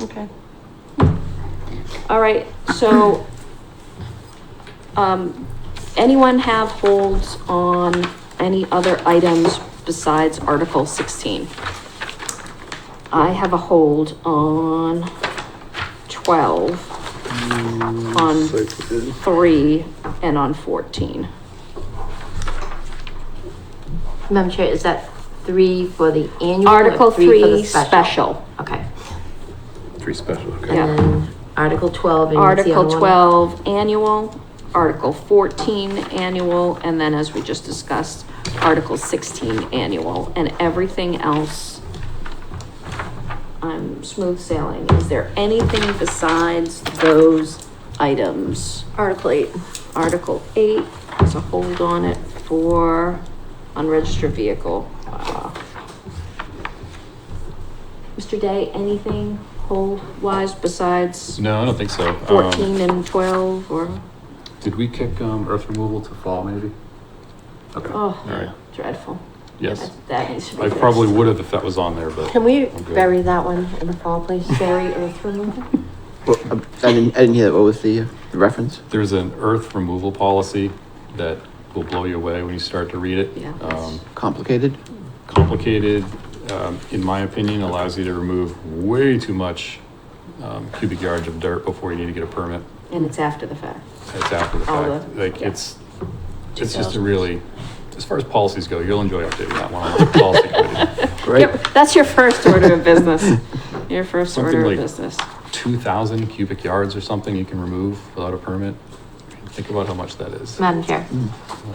Okay. All right, so, um, anyone have holds on any other items besides Article sixteen? I have a hold on twelve, on three, and on fourteen. Madam Chair, is that three for the annual? or Article for the three, special. Okay. Three special, okay. Yeah. And then Article twelve and what's the Article other one? twelve, annual, Article fourteen, annual, and then as we just discussed, Article sixteen, annual, and everything else. I'm smooth sailing. Is there anything besides those items? Article eight. Article eight has a hold on it for unregistered vehicle. Uh, Mr. Day, anything hold wise besides? No, I don't think so. Um, 14 and 12 or, Did we kick, um, earth removal to fall maybe? Okay, all right, oh, dreadful. yes. That- That needs to be I fixed. probably would have if that was on there, but. Can we I'm good. bury that one in the fall, please? Bury earth removal? Well, um, I didn't, I didn't hear that. What was the, uh, the reference? There's an earth removal policy that will blow you away when you start to read it. Yeah. Um, Complicated? complicated, um, in my opinion, allows you to remove way too much, um, cubic yards of dirt before you need to get a permit. And it's after the fact. It's after the All fact, the- like, yeah. it's, it's just a really, as far as policies go, you'll enjoy updating that one on the policy committee. Right? Yep, That's your first order of business. Your first Something order of like- business. two thousand cubic yards or something you can remove without a permit. Think about how much that is. Madam Chair,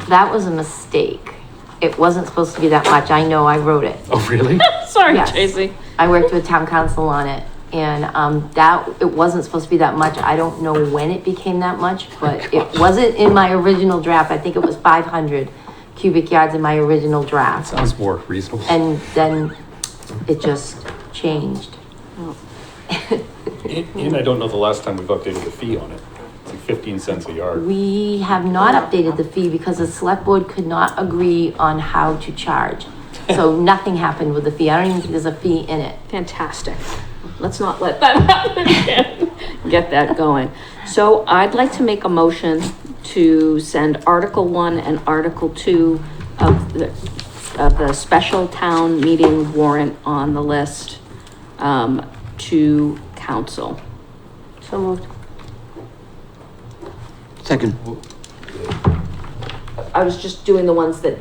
that was a mistake. It wasn't supposed to be that much. I know, I wrote it. Oh, really? Sorry, Yes. Tracy. I worked with town council on it and, um, that, it wasn't supposed to be that much. I don't know when it became that much, but it wasn't in my original draft. I think it was five hundred cubic yards in my original draft. Sounds more reasonable. And then it just changed. And I don't know the last time we've updated the fee on it. It's like fifteen cents a yard. We have not updated the fee because the select board could not agree on how to charge. So nothing happened with the fee. I don't even think there's a fee in it. Fantastic. Let's not let that happen again. Get that going. So I'd like to make a motion to send Article One and Article Two of the, of the special town meeting warrant on the list, um, to council. So moved. Second. I was just doing the ones that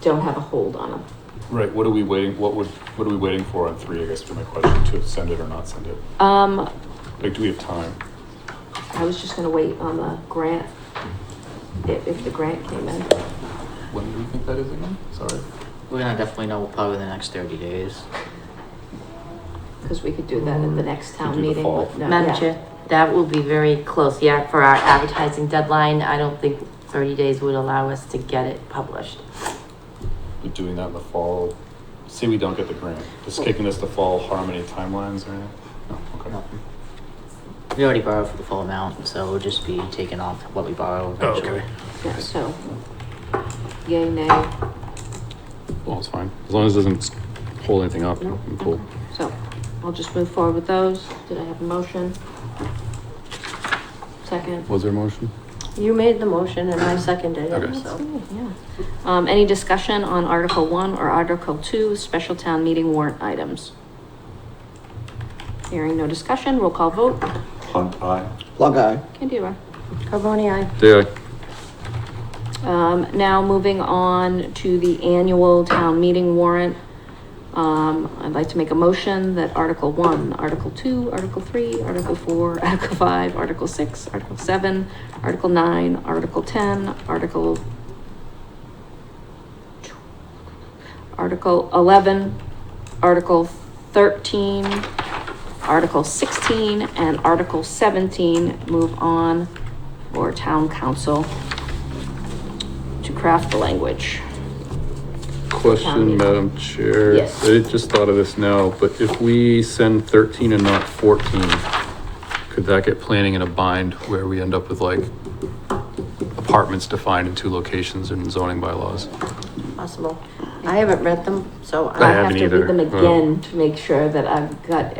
don't have a hold on them. Right, what are we waiting, what would, what are we waiting for on three, I guess, for my question, to send it or not send it? Um, Like, do we have time? I was just gonna wait on the grant, if, if the grant came in. When do we think that is again? Sorry. We're gonna definitely know probably the next thirty days. Because we could do that at the next town Mm. do the meeting. fall. but no, Madam yeah. Chair, that will be very close, yeah, for our advertising deadline. I don't think thirty days would allow us to get it published. We're doing that in the fall. Say we don't get the grant, just kicking us to fall harmony timelines or anything? No, okay. Nothing. We already borrowed for the full amount, so it'll just be taken off what we borrow Oh, eventually. okay. Yeah, so, yay, nay, Well, it's fine, as long as it doesn't hold anything up, I'm cool. so I'll just move forward with those. Did I have a motion? Second? Was there a motion? You made the motion and I seconded it, Okay. so. Yeah. Um, any discussion on Article One or Article Two, special town meeting warrant items? Hearing no discussion, roll call vote. Plug eye. Candida. Carboni, aye. Yeah. Um, now moving on to the annual town meeting warrant. Um, I'd like to make a motion that Article one, Article two, Article three, Article four, Article five, Article six, Article seven, Article nine, Article ten, Article Article eleven, Article thirteen, Article sixteen, and Article seventeen move on for town council to craft the language. Question, Town meeting. Madam Chair. Yes. I just thought of this now, but if we send thirteen and not fourteen, could that get planning in a bind where we end up with like apartments defined in two locations in zoning bylaws? Possible. I haven't read them, so I I haven't have to either. read them Oh. again to make sure that I've got